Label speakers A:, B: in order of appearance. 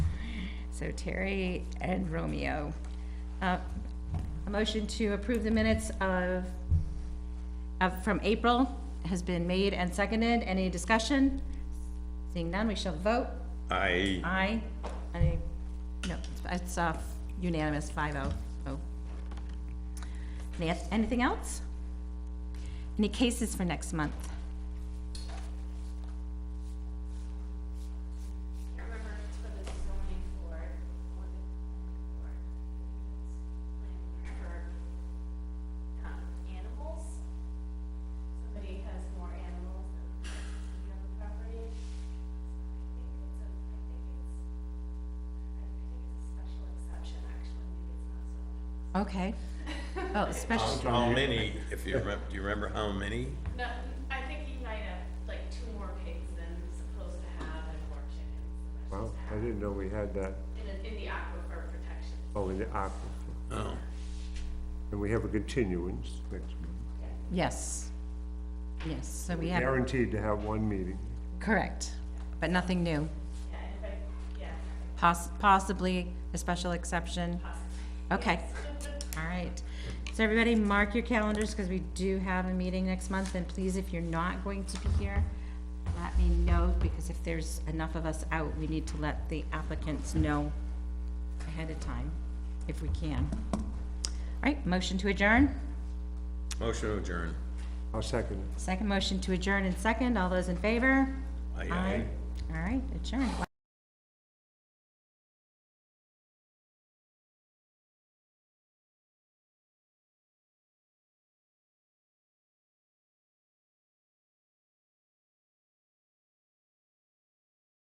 A: so Terry and Romeo. Uh, A motion to approve the minutes of, of, from April has been made and seconded. Any discussion? Seeing none, we shall vote.
B: I,
A: Aye. Any, no, it's uh, unanimous, five oh. oh. Any- Anything else? Any cases for next month?
C: Remember, it's for the zoning board, or the board, it's for, um, animals. Somebody has more animals than you have a property. I think it's a, I think it's, I think it's a special exception, actually, maybe it's not so.
A: Okay. Oh, special,
B: how many, if you remember, do you remember how many?
C: No, I think you might have like two more pigs than supposed to have and more chickens than they're
D: Wow,
C: supposed to
D: I
C: have.
D: didn't know we had that,
C: In, the- in the aquifer protection.
D: oh, in the aquifer.
B: Oh,
D: And we have a continuance next month.
A: yes. Yes, so we have,
D: Guaranteed to have one meeting.
A: correct, but nothing new.
C: Yeah, and if I, yeah,
A: Poss- Possibly a special exception. Okay. All right. So everybody, mark your calendars because we do have a meeting next month. And please, if you're not going to be here, let me know because if there's enough of us out, we need to let the applicants know ahead of time if we can. All right, motion to adjourn.
B: motion to adjourn.
D: I'll second it.
A: Second motion to adjourn and second. All those in favor?
B: Aye, aye.
A: All right, adjourn.